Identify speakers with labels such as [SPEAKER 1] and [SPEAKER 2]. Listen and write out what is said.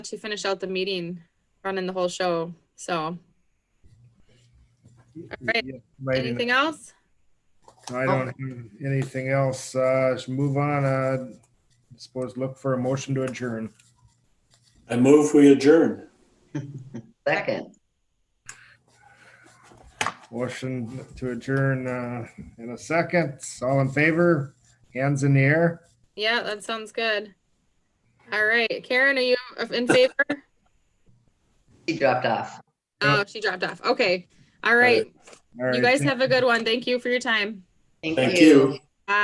[SPEAKER 1] to finish out the meeting, running the whole show. So, right.
[SPEAKER 2] Yeah, right in-
[SPEAKER 1] anything else?
[SPEAKER 2] I don't have anything else. Uh, let's move on. Uh, suppose look for a motion to adjourn.
[SPEAKER 3] I move we adjourn.
[SPEAKER 4] Second,
[SPEAKER 2] Motion to adjourn, uh, in a second. All in favor? Hands in the air?
[SPEAKER 1] Yeah, that sounds good. All right, Karen, are you in favor?
[SPEAKER 4] she dropped off.
[SPEAKER 1] Oh, she dropped off. Okay. All
[SPEAKER 3] right.
[SPEAKER 1] right.
[SPEAKER 2] All right,
[SPEAKER 1] You guys
[SPEAKER 2] thank-
[SPEAKER 1] have a good one. Thank you for your time.
[SPEAKER 3] Thank you.